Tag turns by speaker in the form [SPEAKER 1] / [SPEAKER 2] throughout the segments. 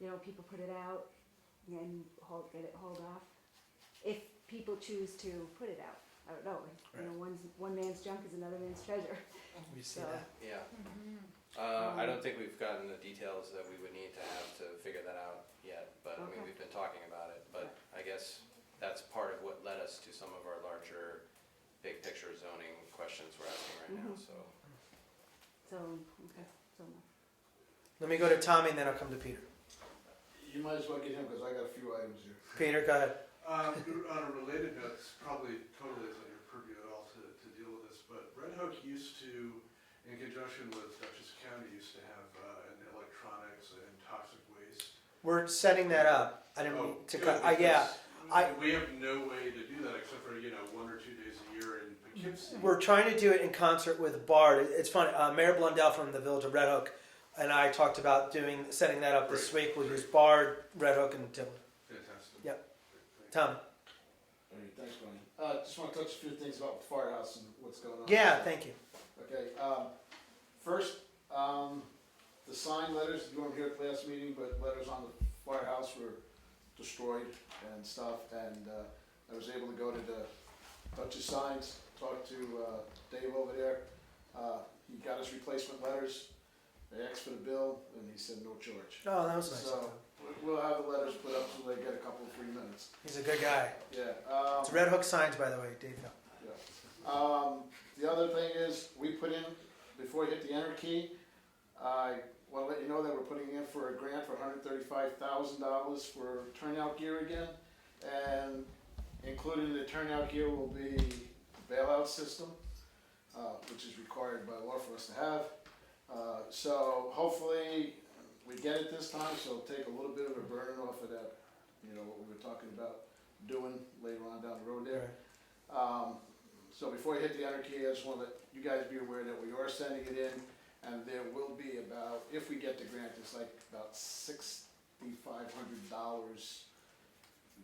[SPEAKER 1] you know, people put it out and then hold, get it hauled off. If people choose to put it out, I don't know, you know,
[SPEAKER 2] Right.
[SPEAKER 1] one's, one man's junk is another man's treasure.
[SPEAKER 2] We see
[SPEAKER 1] So-
[SPEAKER 2] that.
[SPEAKER 3] Yeah. Uh, I don't think we've gotten the details that we would need to have to figure that out yet, but I mean,
[SPEAKER 1] Okay.
[SPEAKER 3] we've been talking about it. But I guess that's part of what led us to some of our larger, big picture zoning questions we're asking right now,
[SPEAKER 1] Mhm.
[SPEAKER 3] so.
[SPEAKER 1] So, okay, so,
[SPEAKER 2] Let me go to Tommy and then I'll come to Peter.
[SPEAKER 4] You might as well get him because I got a few items here.
[SPEAKER 2] Peter, go ahead.
[SPEAKER 5] Uh, on a related note, it's probably totally isn't your purview at all to, to deal with this, but Red Hook used to, in conjunction with Dutchess County, used to have uh, an electronics and toxic waste.
[SPEAKER 2] We're setting that up. I didn't
[SPEAKER 5] Oh,
[SPEAKER 2] mean to
[SPEAKER 5] good,
[SPEAKER 2] cut. I, yeah,
[SPEAKER 5] because
[SPEAKER 2] I-
[SPEAKER 5] We have no way to do that except for, you know, one or two days a year in Poughkeepsie.
[SPEAKER 2] we're trying to do it in concert with Bard. It's funny. Uh, Mayor Blundell from the Village of Red Hook and I talked about doing setting that up this week. We'll use Bard, Red Hook, and Tim.
[SPEAKER 5] Fantastic.
[SPEAKER 2] Yep.
[SPEAKER 5] Thank you.
[SPEAKER 2] Tom.
[SPEAKER 4] All right, thanks, Brian. Uh, just want to touch a few things about the firehouse and what's going on.
[SPEAKER 2] Yeah, thank you.
[SPEAKER 4] Okay, um, first, um, the sign letters, you weren't here at the last meeting, but letters on the firehouse were destroyed and stuff, and, uh, I was able to go to the Dutchess Signs, talk to, uh, Dave over there. Uh, he got his replacement letters, they asked for the bill, and he said no charge.
[SPEAKER 2] Oh, that was nice. of
[SPEAKER 4] So,
[SPEAKER 2] Tom.
[SPEAKER 4] we- we'll have the letters put up so they get a couple, three minutes.
[SPEAKER 2] He's a good guy.
[SPEAKER 4] Yeah,
[SPEAKER 2] It's
[SPEAKER 4] um,
[SPEAKER 2] Red Hook signs, by the way, Dave. Hill.
[SPEAKER 4] yeah. Um, the other thing is, we put in, before you hit the enter key, I wanna let you know that we're putting in for a grant for hundred thirty-five thousand dollars for turnout gear again. And included in the turnout gear will be bailout system, uh, which is required by law for us to have. Uh, so hopefully, we get it this time, so it'll take a little bit of a burden off of that, you know, what we were talking about doing later on down the road there. Um, so before you hit the enter key, I just want to let you guys be aware that we are sending it in, and there will be about, if we get the grant, it's like about sixty-five hundred dollars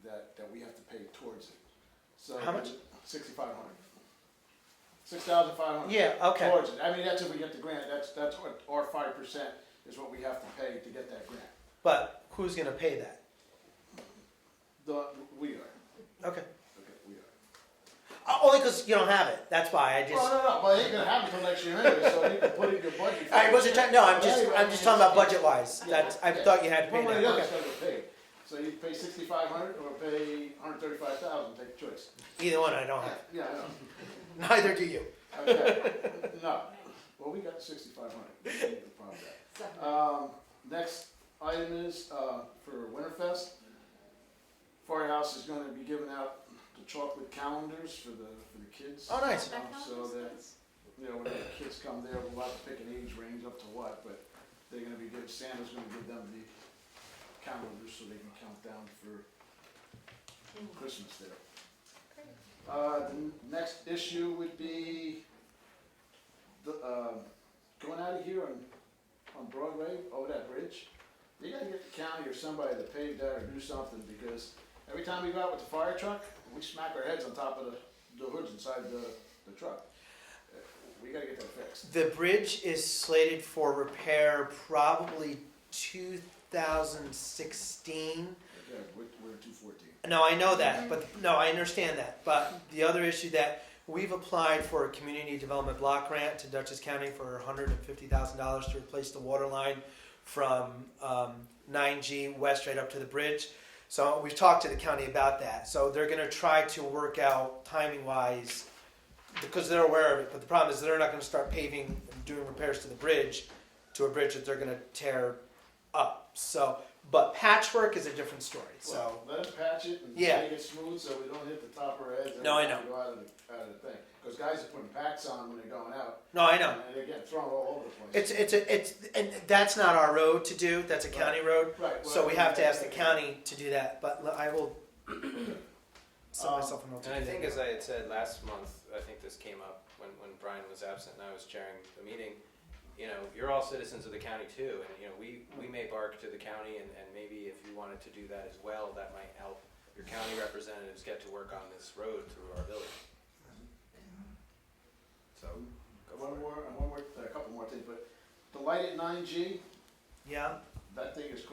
[SPEAKER 4] that, that we have to pay towards it. So
[SPEAKER 2] How much?
[SPEAKER 4] Sixty-five hundred. Six thousand five hundred.
[SPEAKER 2] Yeah. Okay.
[SPEAKER 4] Towards it, I mean, that's if we get the grant, that's, that's what, our five percent is what we have to pay to get that grant.
[SPEAKER 2] But who's gonna pay that?
[SPEAKER 4] The, we are,
[SPEAKER 2] Okay.
[SPEAKER 4] okay, we are.
[SPEAKER 2] Uh, Only because you don't have it. That's why I just.
[SPEAKER 4] Well, no, no, but it ain't gonna happen till next year anyway, so you can put in your budget.
[SPEAKER 2] I wasn't trying. No, I'm just.
[SPEAKER 4] Anyway,
[SPEAKER 2] I'm just talking about
[SPEAKER 4] it's-
[SPEAKER 2] budget wise. That's. I
[SPEAKER 4] Yeah.
[SPEAKER 2] thought you had to pay
[SPEAKER 4] One way
[SPEAKER 2] that.
[SPEAKER 4] or the other,
[SPEAKER 2] Okay.
[SPEAKER 4] it's gotta get paid. So you pay sixty-five hundred or pay hundred thirty-five thousand, take your choice.
[SPEAKER 2] Either one, I don't have.
[SPEAKER 4] Yeah, I know.
[SPEAKER 2] Neither do you.
[SPEAKER 4] Okay, no, well, we got sixty-five hundred, no problem with that. Um, next item is, uh, for Winterfest. Firehouse is gonna be giving out the chocolate calendars for the, for the kids.
[SPEAKER 2] Oh, nice.
[SPEAKER 4] Um, So that, you know, when the kids come there, we'll have to pick an age range up to what, but they're gonna be good, Santa's gonna give them the calendars so they can count down for Christmas there. Uh, the n- next issue would be the, um, going out of here on, on Broadway, over that bridge. You gotta get the county or somebody to pave that or do something, because every time we go out with the fire truck, we smack our heads on top of the, the hoods inside the, the truck. Uh, We gotta get that fixed.
[SPEAKER 2] The bridge is slated for repair probably 2016.
[SPEAKER 4] Yeah, we're, we're two fourteen.
[SPEAKER 2] No, I know that, but no, I understand that. But the other issue that we've applied for a community development block grant to Dutchess County for $150,000 to replace the water line from um, 9G West right up to the bridge. So we've talked to the county about that. So they're going to try to work out timing wise because they're aware of it. But the problem is they're not going to start paving and doing repairs to the bridge to a bridge that they're going to tear up. So, but patchwork is a different story. So.
[SPEAKER 4] So let us patch it and
[SPEAKER 2] Yeah.
[SPEAKER 4] make it smooth so we don't hit the top of our heads. every
[SPEAKER 2] No, I
[SPEAKER 4] time
[SPEAKER 2] know.
[SPEAKER 4] we Go out of the, out of the thing, because guys are putting packs on when they're going out.
[SPEAKER 2] No, I know.
[SPEAKER 4] And they're getting thrown all over the place.
[SPEAKER 2] It's it's a, it's and that's not our road to do. That's a county road.
[SPEAKER 4] Right.
[SPEAKER 2] So we have to ask the
[SPEAKER 4] well,
[SPEAKER 2] county to do that. But l- I will set
[SPEAKER 4] Um,
[SPEAKER 2] myself a note to
[SPEAKER 3] And I
[SPEAKER 2] do that.
[SPEAKER 3] think, as I had said last month, I think this came up when, when Brian was absent and I was chairing the meeting. You know, you're all citizens of the county too, and, you know, we, we may bark to the county, and, and maybe if you wanted to do that as well, that might help your county representatives get to work on this road through our village. So, go for
[SPEAKER 4] One
[SPEAKER 3] it.
[SPEAKER 4] more, and one more, a couple more things, but the light at nine G,
[SPEAKER 2] yeah.
[SPEAKER 4] that thing is